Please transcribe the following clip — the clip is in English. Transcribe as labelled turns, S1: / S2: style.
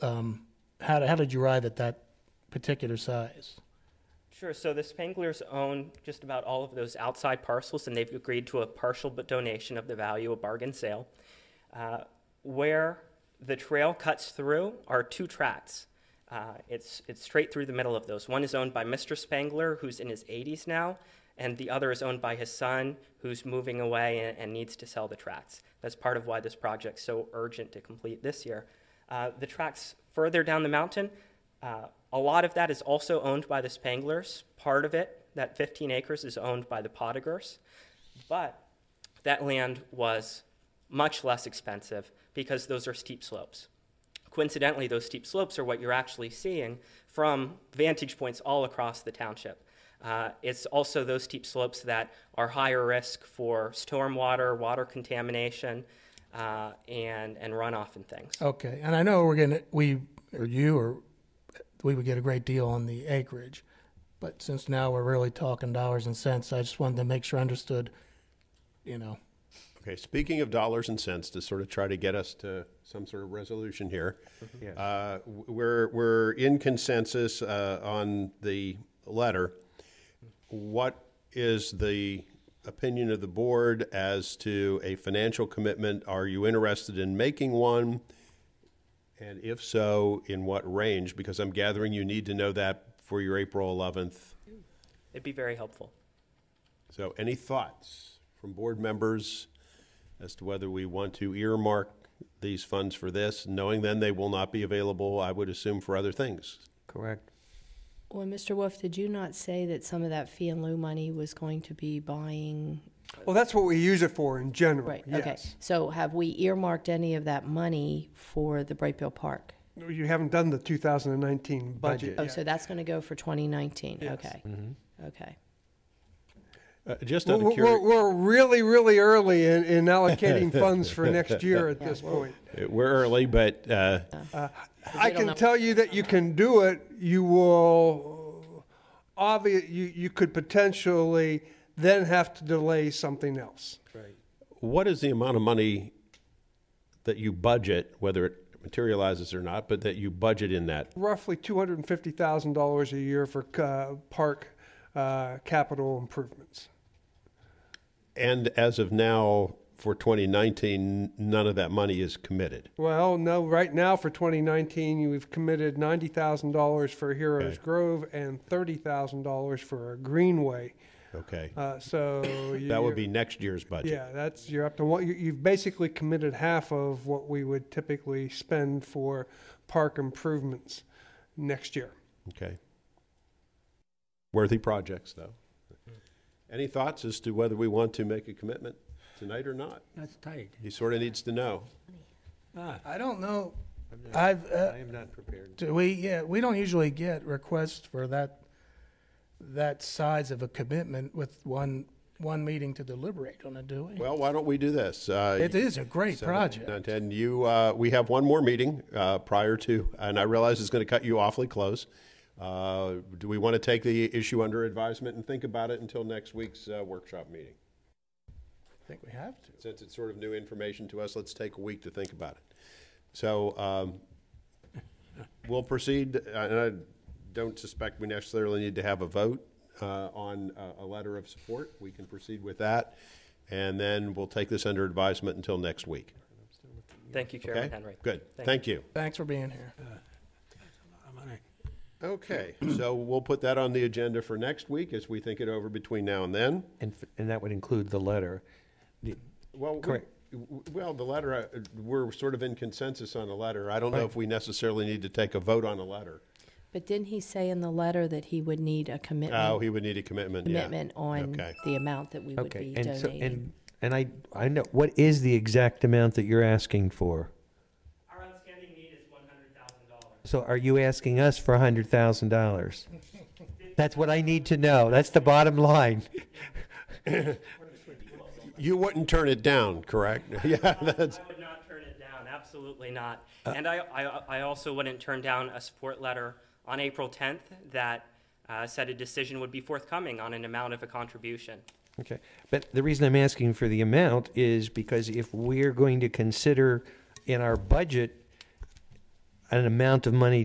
S1: um, how, did- how did you arrive at that particular size?
S2: Sure. So the Spanglers own just about all of those outside parcels, and they've agreed to a partial but donation of the value of bargain sale. Uh, where the trail cuts through are two tracts. Uh, it's it's straight through the middle of those. One is owned by Mr. Spangler, who's in his 80s now, and the other is owned by his son, who's moving away and, and needs to sell the tracts. That's part of why this project's so urgent to complete this year. Uh, the tracts further down the mountain, uh, a lot of that is also owned by the Spanglers. Part of it, that 15 acres, is owned by the Potigers. But that land was much less expensive because those are steep slopes. Coincidentally, those steep slopes are what you're actually seeing from vantage points all across the township. Uh, it's also those steep slopes that are higher risk for stormwater, water contamination, uh, and, and runoff and things.
S1: Okay, and I know we're gonna we or you or we would get a great deal on the acreage, but since now we're really talking dollars and cents, I just wanted to make sure I understood. You know,
S3: Okay, speaking of dollars and cents, to sort of try to get us to some sort of resolution here, uh, w- we're, we're in consensus uh, on the letter. What is the opinion of the board as to a financial commitment? Are you interested in making one? And if so, in what range? Because I'm gathering you need to know that for your April 11th.
S2: It'd be very helpful.
S3: So any thoughts from board members as to whether we want to earmark these funds for this, knowing then they will not be available, I would assume, for other things?
S4: Correct.
S5: Well, Mr. Wolf, did you not say that some of that fee and lieu money was going to be buying?
S4: Well, that's what we use it for in general.
S5: Right, okay.
S4: yes.
S5: So have we earmarked any of that money for the Brightville Park?
S4: You haven't done the 2019 budget
S5: Oh,
S4: yet.
S5: so that's going to go for 2019? Okay.
S6: Mm-hmm.
S5: Okay.
S3: Uh, Just out
S4: We're,
S3: of
S4: we're,
S3: curiosity,
S4: we're really, really early in, in allocating funds for next year at this point.
S3: Uh, we're early, but uh,
S4: I
S5: don't know.
S4: can tell you that you can do it. You will, obvious, you, you could potentially then have to delay something else.
S3: what is the amount of money that you budget, whether it materializes or not, but that you budget in that?
S4: Roughly $250,000 a year for uh, park uh, capital improvements.
S3: And as of now, for 2019, none of that money is committed.
S4: Well, no, right now for 2019, we've committed $90,000 for Heroes
S3: Okay.
S4: Grove and $30,000 for a Greenway.
S3: Okay.
S4: Uh, so
S3: That
S4: you're-
S3: would be next year's budget.
S4: Yeah, that's, you're up to one, you- you've basically committed half of what we would typically spend for park improvements next year.
S3: Okay. Worthy projects, though. Any thoughts as to whether we want to make a commitment tonight or not?
S7: That's tight.
S3: He sort of needs to know.
S7: Ah,
S1: I don't know. I've uh,
S3: I am not prepared.
S1: do we yeah we don't usually get requests for that that size of a commitment with one one meeting to deliberate on it, do we?
S3: Well, why don't we do this? Uh,
S1: it is a great
S3: seven,
S1: project.
S3: nine, Ten, you, uh, we have one more meeting uh, prior to, and I realize it's going to cut you awfully close. Uh, Do we want to take the issue under advisement and think about it until next week's uh, workshop meeting?
S1: I think we have to.
S3: Since it's sort of new information to us, let's take a week to think about it. So um, we'll proceed, uh, and I don't suspect we necessarily need to have a vote uh, on a- a letter of support. We can proceed with that, and then we'll take this under advisement until next week.
S2: Thank you, Chairman
S3: Okay?
S2: Henry.
S3: Good.
S2: Thank
S3: Thank you.
S1: Thanks for being here.
S7: I'm on it.
S3: Okay, so we'll put that on the agenda for next week as we think it over between now and then.
S6: And, f- and that would include the letter. The-
S3: Well, we-
S6: Correct.
S3: w- Well, the letter, uh, we're sort of in consensus on a letter. I don't know if we necessarily need to take a vote on a letter.
S5: But didn't he say in the letter that he would need a
S3: Oh,
S5: commitment,
S3: he would need a commitment, yeah.
S5: commitment on
S3: Okay.
S5: the amount that we would
S6: Okay,
S5: be
S6: and so,
S5: donating?
S6: and, and I, I know, what is the exact amount that you're asking for?
S2: Our outstanding need is $100,000.
S6: So are you asking us for a hundred thousand dollars? That's what I need to know, that's the bottom line.
S3: You wouldn't turn it down, correct? Yeah, that's,
S2: I would not turn it down, absolutely not. And I, I, I also wouldn't turn down a support letter on April 10th that uh, said a decision would be forthcoming on an amount of a contribution.
S6: Okay, but the reason I'm asking for the amount is because if we're going to consider in our budget an amount of money